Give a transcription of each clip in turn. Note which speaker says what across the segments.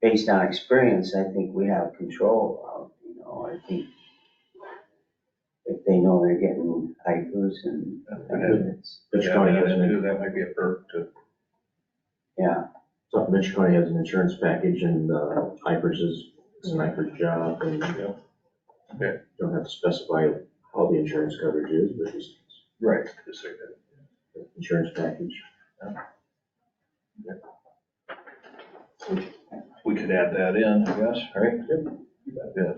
Speaker 1: based on experience, I think we have control of, you know, I think if they know they're getting hikers and, I mean, it's,
Speaker 2: Mitch
Speaker 3: Yeah,
Speaker 2: County
Speaker 3: that's
Speaker 2: has an,
Speaker 3: true. That might be a perk to,
Speaker 1: yeah,
Speaker 2: so Mitch County has an insurance package and, uh, Ipers is, it's an Ipers job and.
Speaker 3: Yeah. Okay.
Speaker 2: Don't have to specify how the insurance coverage is, but it's
Speaker 3: right, just like that.
Speaker 2: it's insurance package.
Speaker 3: We could add that in, I guess, right? Yes.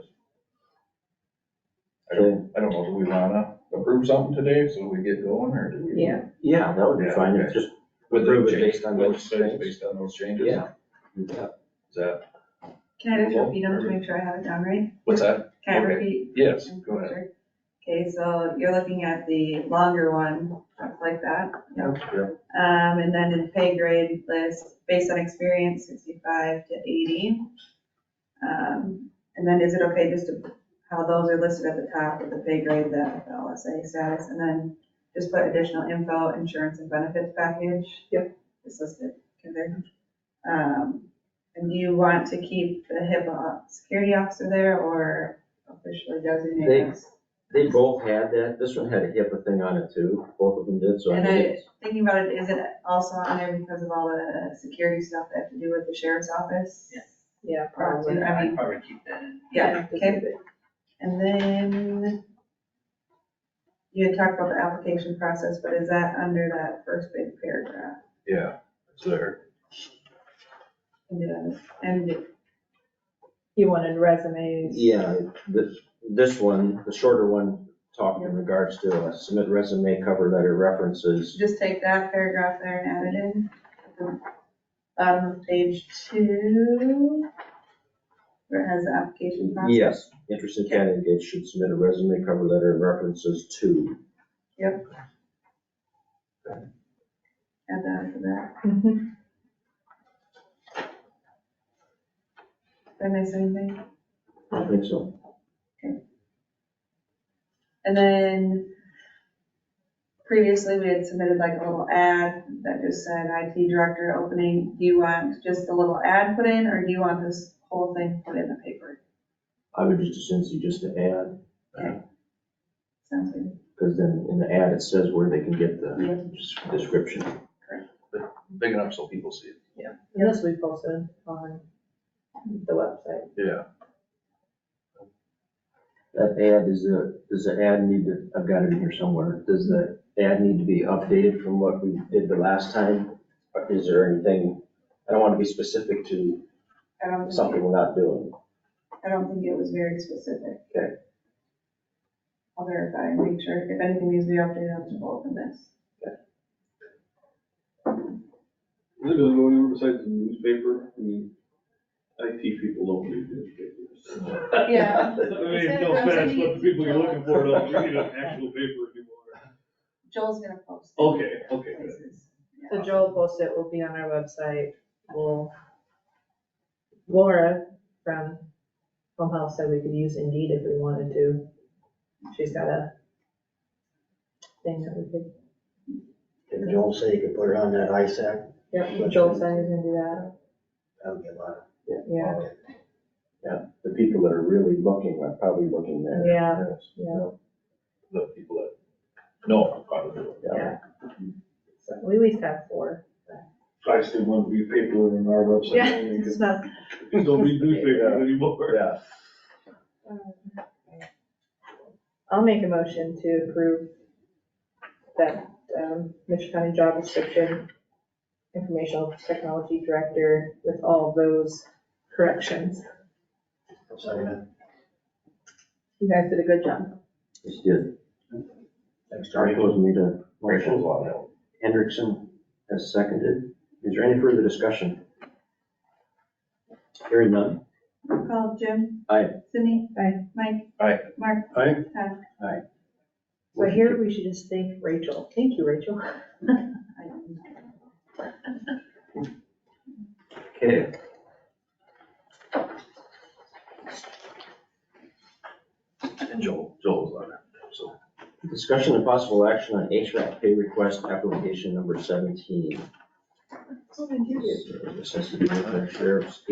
Speaker 3: I don't, I don't know, do we wanna approve something today so we get going or do we?
Speaker 4: Yeah,
Speaker 2: Yeah, that would be
Speaker 3: Yeah,
Speaker 2: fine,
Speaker 3: okay.
Speaker 2: just.
Speaker 3: With
Speaker 2: Approve
Speaker 3: those
Speaker 2: it
Speaker 3: changes,
Speaker 2: based on
Speaker 3: with-
Speaker 2: those Mm-hmm. things?
Speaker 3: Based on those changes?
Speaker 2: Yeah. Yeah.
Speaker 3: Is that,
Speaker 5: Can I just repeat them to make sure I have it down right?
Speaker 3: what's that?
Speaker 5: Can I
Speaker 3: Okay.
Speaker 5: repeat?
Speaker 3: Yes, go ahead.
Speaker 5: Okay, so you're looking at the longer one, stuff like that.
Speaker 3: Yeah.
Speaker 5: Um, and then in pay grade list, based on experience, sixty-five to eighty. Um, and then is it okay just to, how those are listed at the top with the pay grade, the LSA status, and then just put additional info, insurance and benefits package? Yep. It's listed, okay, there. Um, and do you want to keep the HIPAA security officer there or officially
Speaker 2: They-
Speaker 5: designate us?
Speaker 2: They both had that, this one had a HIPAA thing on it too, both of them did, so. I
Speaker 5: And
Speaker 2: mean,
Speaker 5: I-
Speaker 2: it's-
Speaker 5: Thinking about it, is it also on there because of all the security stuff that have to do with the sheriff's office?
Speaker 6: Yeah.
Speaker 4: yeah,
Speaker 5: Probably,
Speaker 4: probably.
Speaker 5: I mean,
Speaker 6: I'd probably keep that in.
Speaker 5: yeah, okay. And then you had talked about the application process, but is that under that first big paragraph?
Speaker 3: Yeah, it's there.
Speaker 5: And did I- And
Speaker 4: You wanted resumes.
Speaker 2: Yeah, this, this one, the shorter one, talking in regards to uh, submit resume, cover letter, references.
Speaker 5: just take that paragraph there and add it in. Bottom of page two, where it has the application process.
Speaker 2: Yes, interested candidates should submit a resume, cover letter, and references to.
Speaker 5: Add that to that.
Speaker 4: Mhm.
Speaker 5: Did I miss anything?
Speaker 2: I don't think so.
Speaker 5: And then previously, we had submitted like a little ad that just said IT director opening. Do you want just a little ad put in, or do you want this whole thing put in the paper?
Speaker 2: I would just assume you just to add,
Speaker 5: Sounds good.
Speaker 2: because then in the ad, it says where they can get the
Speaker 3: Just
Speaker 2: description.
Speaker 3: Big enough so people see it.
Speaker 4: And this we posted on the website.
Speaker 3: Yeah.
Speaker 2: That ad is a, does the ad need to, I've got it in here somewhere, does the ad need to be updated from what we did the last time? Or Is there anything, I don't want to be specific to
Speaker 5: I don't think,
Speaker 2: something we're not doing.
Speaker 5: I don't think it was very specific.
Speaker 2: Okay.
Speaker 5: I'll verify and make sure. If anything needs to be updated, I'll just open this.
Speaker 7: Is it gonna go anywhere besides the newspaper? I mean, IT people don't read newspapers.
Speaker 5: Yeah.
Speaker 7: I mean,
Speaker 5: Instead
Speaker 7: no
Speaker 5: of
Speaker 7: offense,
Speaker 5: browsing-
Speaker 7: but the people you're looking for don't read an actual paper anymore.
Speaker 5: Joel's gonna post. it.
Speaker 7: Okay, okay, good.
Speaker 5: Places.
Speaker 4: So Joel posted, will be on our website, will. Laura from Home Health said we could use Indeed if we wanted to. She's got a thing that we could,
Speaker 8: Didn't Joel say you could put it on that ISAC?
Speaker 4: yeah, Joel said he's gonna do that,
Speaker 8: That would be a lot.
Speaker 4: yeah.
Speaker 2: The people that are really looking are probably looking there.
Speaker 4: Yeah,
Speaker 3: Yes.
Speaker 4: yeah.
Speaker 3: The people that know how to do it.
Speaker 4: So we at least have four.
Speaker 7: I still want to read paper on our website only because
Speaker 4: not.
Speaker 7: people don't read newspapers anymore.
Speaker 3: Yeah.
Speaker 4: I'll make a motion to approve that, um, Mitchell County job description, informational technology director with all those corrections.
Speaker 8: I'm sorry, man.
Speaker 4: You guys did a good job.
Speaker 2: It's good.
Speaker 8: Thanks,
Speaker 2: Sorry,
Speaker 8: Jerry.
Speaker 2: it was me to.
Speaker 3: Rachel's on it.
Speaker 2: Hendrickson has seconded. Is there any further discussion? Hearing none.
Speaker 5: Call Jim.
Speaker 2: Aye.
Speaker 5: Sydney.
Speaker 4: Aye.
Speaker 5: Mike.
Speaker 3: Aye.
Speaker 5: Mark.
Speaker 7: Aye.
Speaker 5: Todd.
Speaker 4: So here we should just thank Rachel. Thank you, Rachel.
Speaker 5: I-
Speaker 2: Okay.
Speaker 3: And Joel, Joel's on it, so.
Speaker 2: Discussion and possible action on HVAC pay request application number seventeen.
Speaker 5: What did you do?
Speaker 2: This has to do with our sheriff's